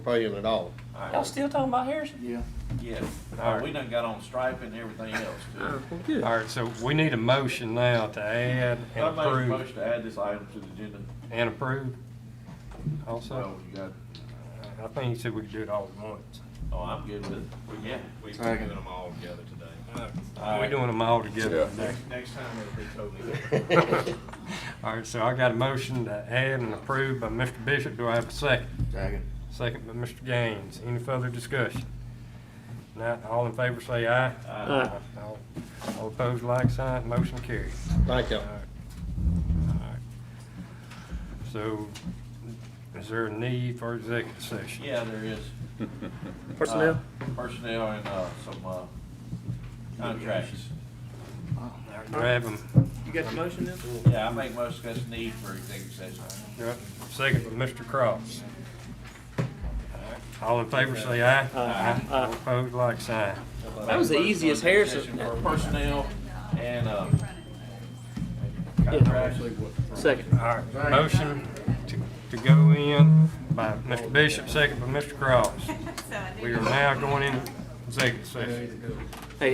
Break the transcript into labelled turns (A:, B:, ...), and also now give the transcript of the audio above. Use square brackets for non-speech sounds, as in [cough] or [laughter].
A: paying at all.
B: Y'all still talking about Harrison?
C: Yeah.
D: Yes, Uh, we done got on stripe and everything else too.
B: good.
E: All right, so we need a motion now to add and
D: I make a
E: approve,
D: motion to add this item to the agenda.
E: and approve also.
D: So you got,
E: I think you said we could do it all at once.
D: oh, I'm good with it. Yeah.
F: We've given them all together today.
E: We're doing them all together.
F: Next, next time it'll be totally different.
E: All right, so I got a motion to add and approve by Mr. Bishop. Do I have a second?
C: Second.
E: Second by Mr. Gaines. Any further discussion? Not, all in favor say aye.
B: Aye.
E: All- All opposed, like sign, motion carries.
A: Thank you.
E: All right. All right. So is there a need for executive session?
D: Yeah, there
B: [laughs]
D: is.
B: Personnel?
D: Uh, Personnel and, uh, some, uh, contracts.
E: Grab 'em.
B: You got the motion then?
D: Yeah, I make most of us need for executive session.
E: Yep. Second by Mr. Cross. All in favor say aye.
D: Aye.
E: All opposed, like sign.
B: That was the easiest Harrison-
D: For personnel and, uh, contracts.
B: Second.
E: All right, motion to, to go in by Mr. Bishop, second by Mr. Cross. We are now going in executive session.